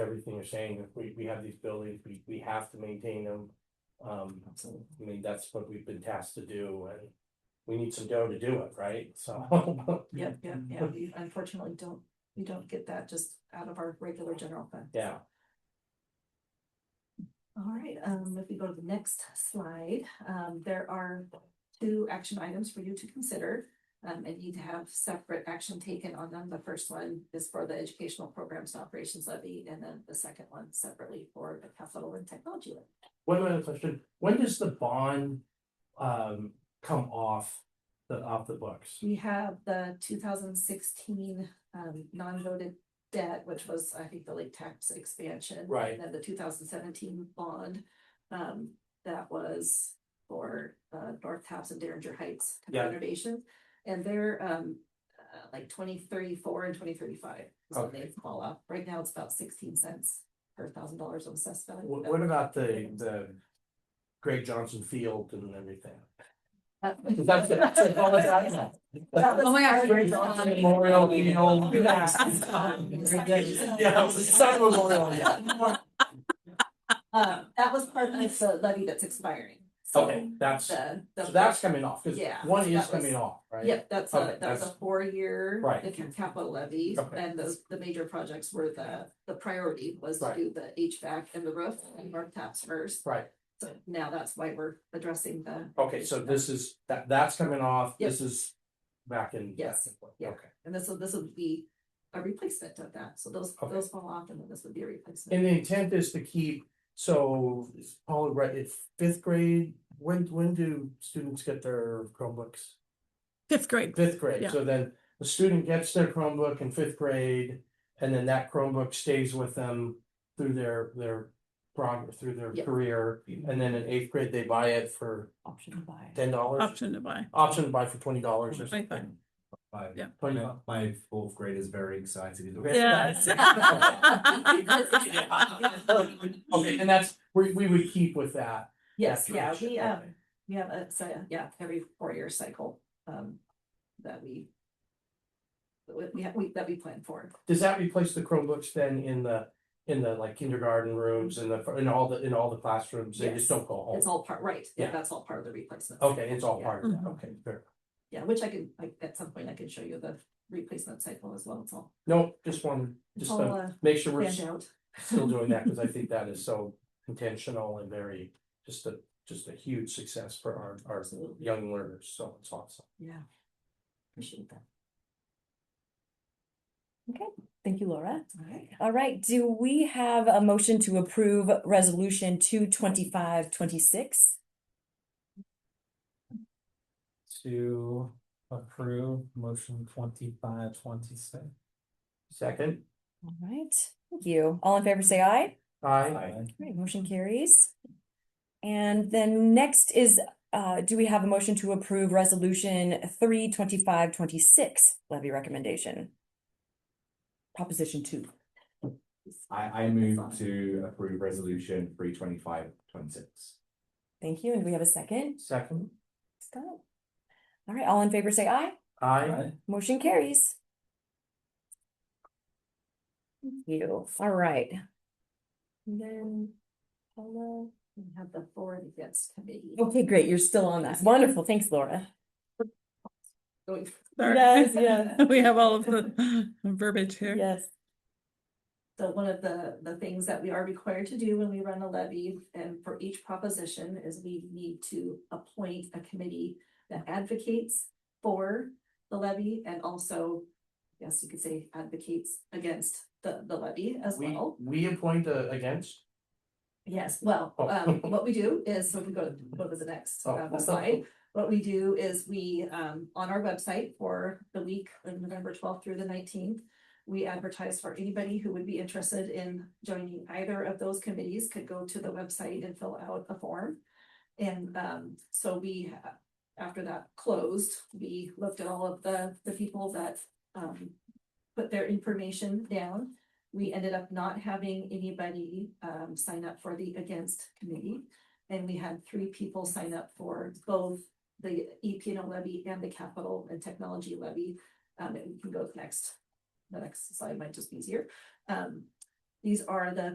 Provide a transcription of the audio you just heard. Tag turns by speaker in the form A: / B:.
A: everything you're saying, if we, we have these buildings, we, we have to maintain them. Um, I mean, that's what we've been tasked to do, and we need some dough to do it, right, so.
B: Yep, yep, yeah, we unfortunately don't, we don't get that just out of our regular general fund.
A: Yeah.
B: All right, um, if we go to the next slide, um, there are two action items for you to consider. Um, and you'd have separate action taken on them. The first one is for the educational programs and operations levy, and then the second one separately for the capital and technology. levy.
A: One other question, when does the bond, um, come off the, off the books?
B: We have the two thousand sixteen um non-voted debt, which was, I think, the lake tax expansion.
A: Right.
B: And then the two thousand seventeen bond, um, that was for uh North Taps and Derringer Heights
A: Yeah.
B: renovation. And they're um uh, like twenty thirty-four and twenty thirty-five is when
A: Okay.
B: they fall off. Right now, it's about sixteen cents per thousand dollars of assessed value.
A: What, what about the, the Greg Johnson Field and everything?
B: That-
A: That's it, that's it, all that's that.
B: was
C: Oh my gosh,
B: part
C: Greg
B: of the-
C: Johnson
A: Memorial, the old. Yeah, it was the Sun Memorial, yeah.
B: Um, that was part of the levy that's expiring. So
A: Okay, that's, so
B: The, the.
A: that's coming off, cause
B: Yeah,
A: one is
B: that was-
A: coming off, right?
B: Yep, that's
A: Okay,
B: a, that was a
A: that's-
B: four-year.
A: Right.
B: If your capital levy,
A: Okay.
B: and those, the major projects were the, the priority was to
A: Right.
B: do the HVAC and the roof and our taps first.
A: Right,
B: So now that's why we're addressing the,
A: okay, so this is, that, that's coming off,
B: Yep.
A: this is back in.
B: Yes, yeah.
A: Okay,
B: and this, will this would be a replacement of that. So those,
A: Okay.
B: those fall off and then this would be a replacement.
A: and the intent is to keep, so, all right, if fifth grade, when, when do students get their Chromebooks?
C: Fifth grade.
A: Fifth grade,
C: Yeah.
A: so then the student gets their Chromebook in fifth grade, and then that Chromebook stays with them through their, their progress, through their
B: Yeah.
A: career, and then in eighth grade, they buy it for
B: Option to buy.
A: ten dollars,
C: Option to buy.
A: option to buy for twenty dollars or something.
C: Twenty-five.
D: Five.
C: Yeah.
A: Twenty
D: My,
A: bucks.
D: my fourth grade is very excited.
C: Yes.
B: Oh.
A: Okay, and that's, we, we would keep with that.
B: Yes,
A: that
B: yeah,
A: tradition.
B: we, um,
A: Okay.
B: we have a, so, yeah, every four-year cycle, um, that we. that we- We, have- we, that we plan for,
A: Does that replace the Chromebooks then in the, in the like kindergarten rooms and the, in all the, in all the classrooms, they
B: Yes.
A: just don't go
B: it's
A: home?
B: all part, right, yeah,
A: Oh. Yeah.
B: that's all part of the replacement.
A: Okay, it's all
B: Yeah.
A: part of that,
C: Mhm.
A: okay, fair.
B: Yeah, which I can, like, at some point I can show you the replacement cycle as well, it's all,
A: No, just wanted,
B: it's
A: just
B: all,
A: to
B: uh,
A: make sure we're
B: planned out.
A: still doing that, because I think that is so intentional and very, just a, just a huge success for our, our
B: Absolutely,
A: young learners, so it's awesome.
B: yeah. Appreciate that.
E: Thank you, Laura.
B: All right,
E: All right, do we have a motion to approve resolution two twenty-five twenty-six?
D: To approve motion twenty-five, twenty-six.
A: Second,
E: All right, thank you. All in favor, say aye.
A: I,
E: All right, motion carries. And then next is, uh, do we have a motion to approve resolution three twenty-five twenty-six levy recommendation? Proposition two.
D: I, I move to approve resolution three twenty-five, twenty-six.
E: Thank you. And do we have a second?
A: second,
E: Scott? All right, all in favor, say aye.
A: I,
E: Motion carries. Thank you. All right. And Then, hello.
B: we have the for and against committee.
E: Okay, great. You're still on that. Wonderful. Thanks, Laura.
B: Going
C: Sorry.
E: Yes, yes.
C: We have all of the verbiage here.
E: Yes.
B: So one of the, the things that we are required to do when we run a levy and for each proposition is we need to appoint a committee that advocates for the levy and also, yes, you could say advocates against the, the levy as
A: we,
B: well.
A: we appoint a, against,
B: Yes, well,
A: Oh.
B: um, what we do is, so if we go, to- go to the next
A: Oh.
B: um, slide. What we do is we, um, on our website for the week of November twelfth through the nineteenth, we advertise for anybody who would be interested in joining either of those committees could go to the website and fill out a form. And, um, so we, uh, after that closed, we looked at all of the, the people that, um, put their information down we ended up not having anybody um sign up for the against committee. And we had three people sign up for both the EP and O levy and the capital and technology levy. Um, and we can go to the next, the next slide might just be easier. Um, These are the